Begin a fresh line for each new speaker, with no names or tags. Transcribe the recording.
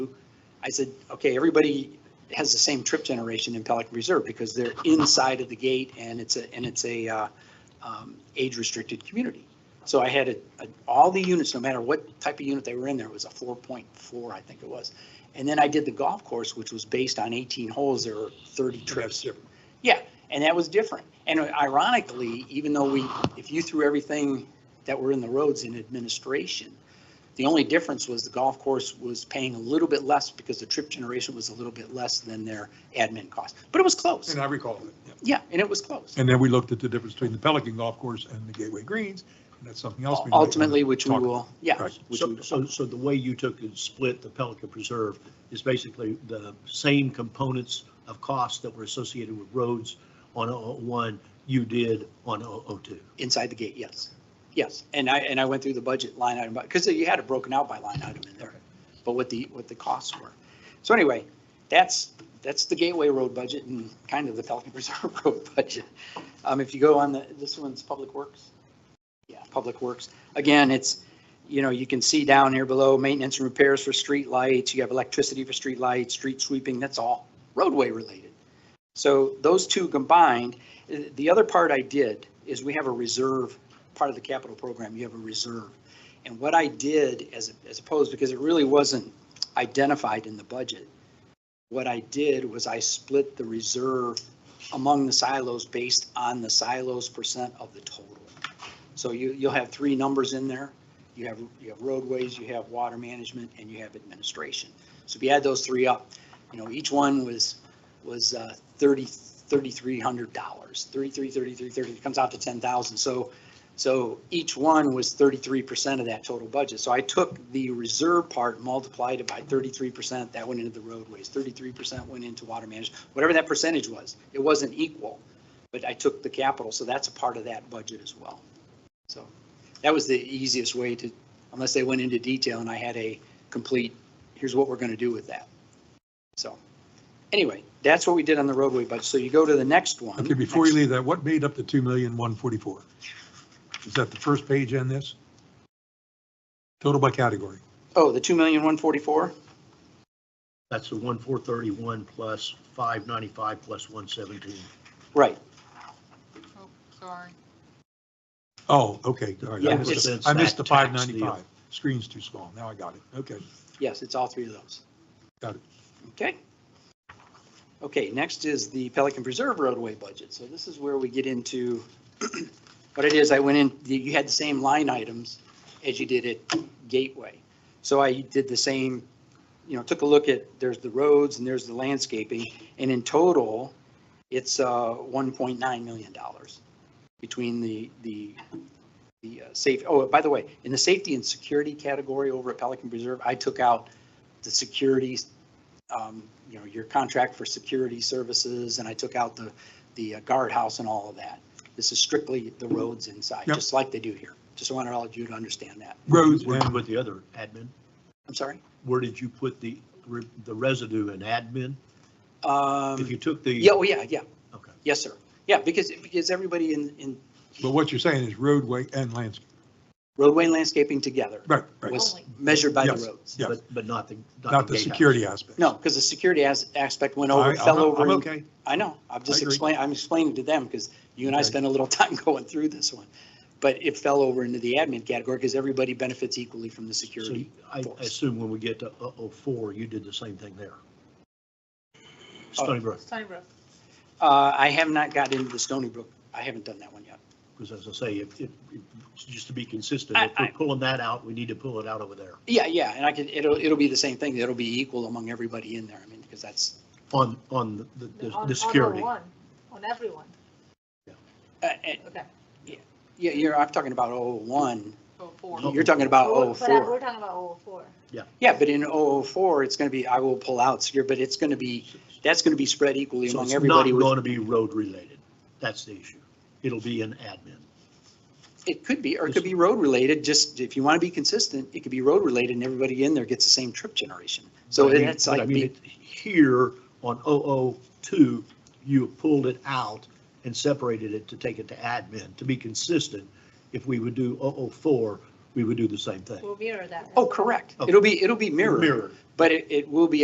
I said, okay, everybody has the same trip generation in Pelican Reserve because they're inside of the gate and it's a, and it's a uh, um, age-restricted community. So I had a, a- all the units, no matter what type of unit they were in, there was a 4.4, I think it was. And then I did the golf course, which was based on 18 holes, there were 30 trips. Yeah, and that was different. And ironically, even though we, if you threw everything that were in the roads in administration, the only difference was the golf course was paying a little bit less because the trip generation was a little bit less than their admin cost, but it was close.
And I recall it. yeah.
Yeah, and it was close.
And then we looked at the difference between the Pelican Golf Course and the Gateway Greens, and that's something else. we might wanna
Ultimately, which we
talk
will, yeah.
Right.
which
So,
we-
so, so the way you took and split the Pelican Preserve is basically the same components of cost that were associated with roads on 001, you did on 002.
Inside the gate, yes. Yes, and I, and I went through the budget line item, because you had it broken out by line item in there, but what the, what the costs were. So anyway, that's, that's the Gateway Road budget and kind of the Pelican Reserve Road budget. Um, if you go on the, this one's Public Works. Yeah, Public Works. Again, it's, you know, you can see down here below, maintenance and repairs for street lights. you have electricity for street lights, street sweeping, that's all roadway related. So those two combined, the other part I did is we have a reserve, part of the capital program, you have a reserve. And what I did as, as opposed, because it really wasn't identified in the budget, what I did was I split the reserve among the silos based on the silos percent of the total. So you, you'll have three numbers in there. You have, you have roadways, you have water management, and you have administration. So if you add those three up, you know, each one was was uh, 30, $3,300, 33, 33, 30, it comes out to 10,000. So, so each one was 33% of that total budget. So I took the reserve part, multiplied it by 33%, that went into the roadways, 33% went into water management, whatever that percentage was. It wasn't equal, but I took the capital, so that's a part of that budget as well. So that was the easiest way to, unless they went into detail and I had a complete, here's what we're going to do with that. So anyway, that's what we did on the roadway budget. So you go to the next one.
about. Okay, before you leave that, what made up the two million, one forty-four? Is that the first page in this? Total by category.
Oh, the 2,144?
That's the 1431 plus 595 plus 117.
Right.
Oh, sorry.
Oh, okay, all right.
Yeah,
I missed the-
it's-
I missed the
it's that
five
tax deal.
ninety-five. Screen's too small. Now I got it. Okay.
Yes, it's all three of those.
Got it.
Okay. Okay, next is the Pelican Preserve roadway budget. So this is where we get into, what it is, I went in, you had the same line items as you did at Gateway. So I did the same, you know, took a look at, there's the roads and there's the landscaping, and in total, it's uh, $1.9 million between the, the, the uh, safe, oh, by the way, in the safety and security category over at Pelican Preserve, I took out the security, um, you know, your contract for security services, and I took out the, the uh, guardhouse and all of that. This is strictly the roads inside,
Yep.
just like they do here. Just wanted all of you to understand that.
Roads
Where did you
and
put the other admin?
I'm sorry?
Where did you put the, re- the residue in admin? If you
Um,
took the.
yeah, oh, yeah, yeah,
Okay.
yes, sir. Yeah, because, because everybody in, in
But what you're saying is roadway and landscape.
roadway and landscaping together
Right, right.
was measured by the
Yes.
roads.
Yeah.
But, but not the.
Not the
gatehouse.
security aspect.
No, because the security as, aspect went
I-
over,
I'm-
fell over.
I'm
in-
okay.
I know, I'm just
I agree.
explaining, I'm explaining to them because you and I
Okay.
spent a little time going through this one. But it fell over into the admin category because everybody benefits equally from the
So
security.
I
force.
assume when we get to 004, you did the same thing there. Stony Brook,
Stony Brook.
Uh, I have not got into the Stony Brook. I haven't done that one yet.
because as I say, if, if, if- just to be consistent,
I-
if we're
I-
pulling that out, we need to pull it out over there
Yeah, yeah, and I could, it'll, it'll be the same thing. It'll be equal among everybody in there. I mean, because that's,
on, on the- the,
On-
the, the security.
On one, on everyone,
uh, uh,
okay,
yeah, you're, I'm talking about 01.
so Oh, four.
No.
You're talking about
Oh, But I-
04.
we're talking about oh, four.
Yeah, but in 004, it's going to be, I will pull out, secure, but it's going to be, that's going to be spread equally
So
among
it's not
everybody. with-
going to be road related. That's the issue. It'll be an admin.
It could be, or it could be road related, just if you want to be consistent, it could be road related and everybody in there gets the same trip generation. So
But I mean-
it's
but I
like,
mean,
be-
it- Here on 002, you pulled it out and separated it to take it to admin. To be consistent, if we would do 004, we would do the same thing.
We'll mirror that.
oh, correct.
Okay.
It'll be, it'll be mirrored,
Mirror.
but it, it will be